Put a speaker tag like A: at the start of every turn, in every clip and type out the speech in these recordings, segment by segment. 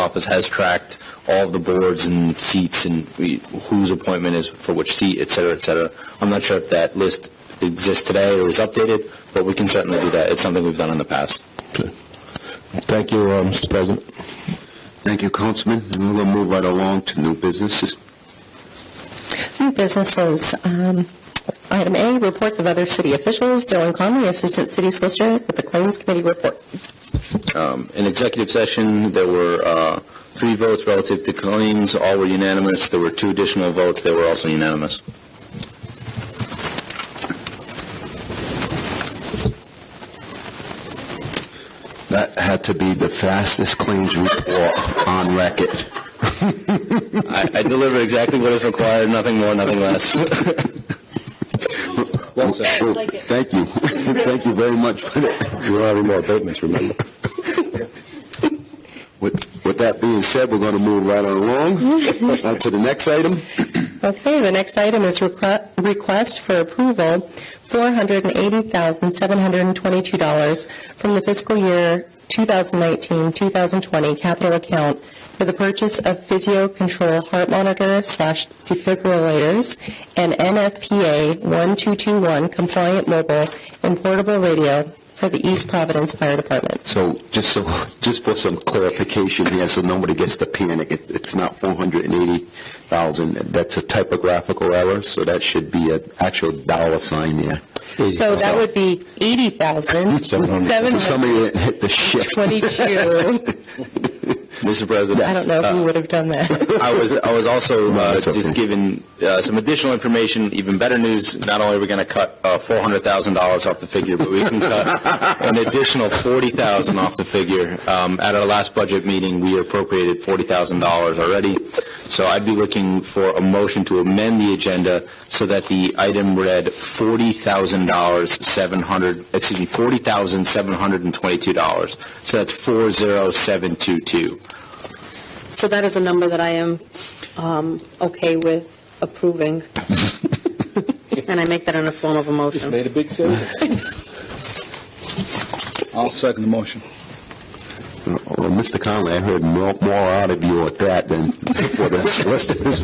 A: office has tracked all of the boards and seats and we- whose appointment is for which seat, et cetera, et cetera. I'm not sure if that list exists today or is updated, but we can certainly do that. It's something we've done in the past.
B: Thank you, uh, Mr. President.
C: Thank you, Councilman. And we'll move right along to new businesses.
D: New businesses. Um, Item A, reports of other city officials. Dylan Conley, Assistant City Solicitor with the Claims Committee report.
A: In executive session, there were uh, three votes relative to claims. All were unanimous. There were two additional votes. They were also unanimous.
C: That had to be the fastest claims report on record.
A: I I delivered exactly what is required, nothing more, nothing less.
C: Well, Thank you. Thank you very much for that. You're having more abatements, remember? With with that being said, we're going to move right along
D: Mm-hmm.
C: Now to the next item.
D: Okay, the next item is requ- request for approval, $480,722 from the fiscal year 2019-2020 capital account for the purchase of physio control heart monitor slash defibrillators and NFPA 1221 compliant mobile and portable radio for the East Providence Fire Department.
C: So just so, just for some clarification here, so nobody gets to panic, it- it's not 480,000, that's a typographical error, so that should be an actual dollar sign there.
D: So that would be
C: So Somebody
D: $80,722.
C: that hit the shift.
A: Mr. President.
D: I don't know if
A: uh,
D: you would have done that.
A: I was, I was also
C: No,
A: uh,
C: that's
A: just
C: okay.
A: given uh, some additional information, even better news. Not only are we going to cut uh, $400,000 off the figure, but we can cut an additional $40,000 off the figure. Um, At our last budget meeting, we appropriated $40,000 already. So I'd be looking for a motion to amend the agenda so that the item read $40,000, 700, excuse me, $40,722. So that's 40722.
E: So that is a number that I am um, okay with approving. And I make that in the form of a motion.
F: Made a big failure. I'll second the motion.
C: Well, Mr. Conley, I heard more more out of you at that than for the rest of his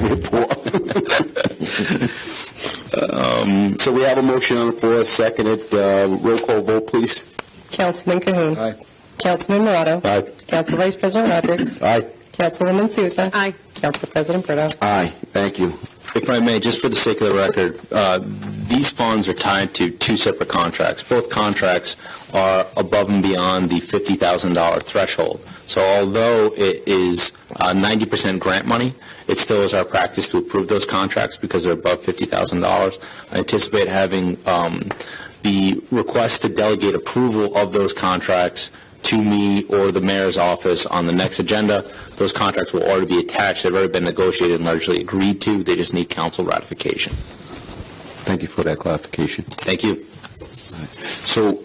C: report. Um, So we have a motion on the floor, seconded, Uh, roll call vote, please.
D: Councilman Cahoon.
F: Aye.
D: Councilman Morado.
C: Aye.
D: Council Vice President Rodrick.
C: Aye.
D: Councilwoman Souza.
E: Aye.
D: Council President Brito.
C: Aye, thank you.
A: If I may, just for the sake of the record, uh, these funds are tied to two separate contracts. Both contracts are above and beyond the $50,000 threshold. So although it is uh, 90% grant money, it still is our practice to approve those contracts because they're above $50,000. I anticipate having um, the request to delegate approval of those contracts to me or the mayor's office on the next agenda. Those contracts will already be attached. They've already been negotiated and largely agreed to. They just need council ratification.
C: Thank you for that clarification.
A: Thank you.
C: So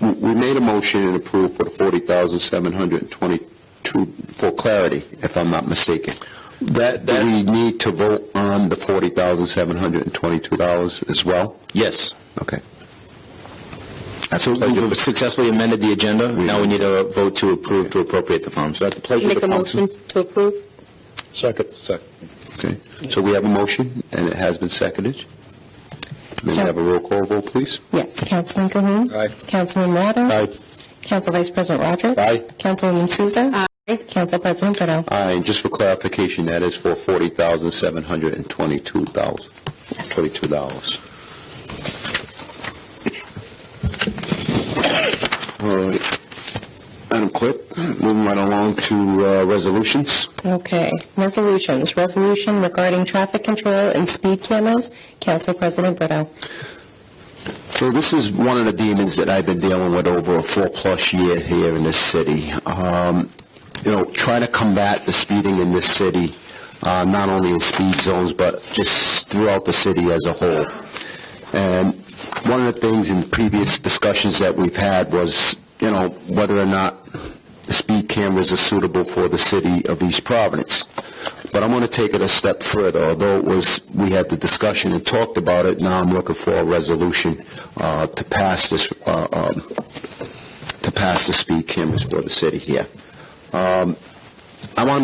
C: w- we made a motion and approved for the 40,722, for clarity, if I'm not mistaken.
A: That,
C: Do we need to vote on the $40,722 as well?
A: yes.
C: Okay.
A: So we've successfully amended the agenda. Now we need a vote to approve to appropriate the funds.
C: That's the pleasure of
E: Make
C: the
E: a
C: council.
E: motion to approve?
F: Second. Second.
C: Okay. So we have a motion, and it has been seconded. May we have a roll call vote, please?
D: Yes, Councilman Cahoon.
F: Aye.
D: Councilman Morado. Council Vice President Rodrick.
C: Aye.
D: Councilwoman Souza.
E: Aye.
D: Council President Brito.
C: Aye, and just for clarification, that is for $40,722.
E: Yes.
C: $22. All right. Madam Clerk, moving right along to uh, resolutions.
D: Okay, resolutions. Resolution regarding traffic control and speed cameras. Council President Brito.
C: So this is one of the demons that I've been dealing with over a four-plus year here in this city. Um, You know, trying to combat the speeding in this city, uh, not only in speed zones, but just throughout the city as a whole. And one of the things in previous discussions that we've had was, you know, whether or not the speed cameras are suitable for the city of East Providence. But I'm going to take it a step further. Although it was, we had the discussion and talked about it, now I'm looking for a resolution uh, to pass this, uh, um, to pass the speed cameras for the city here. Um, I want to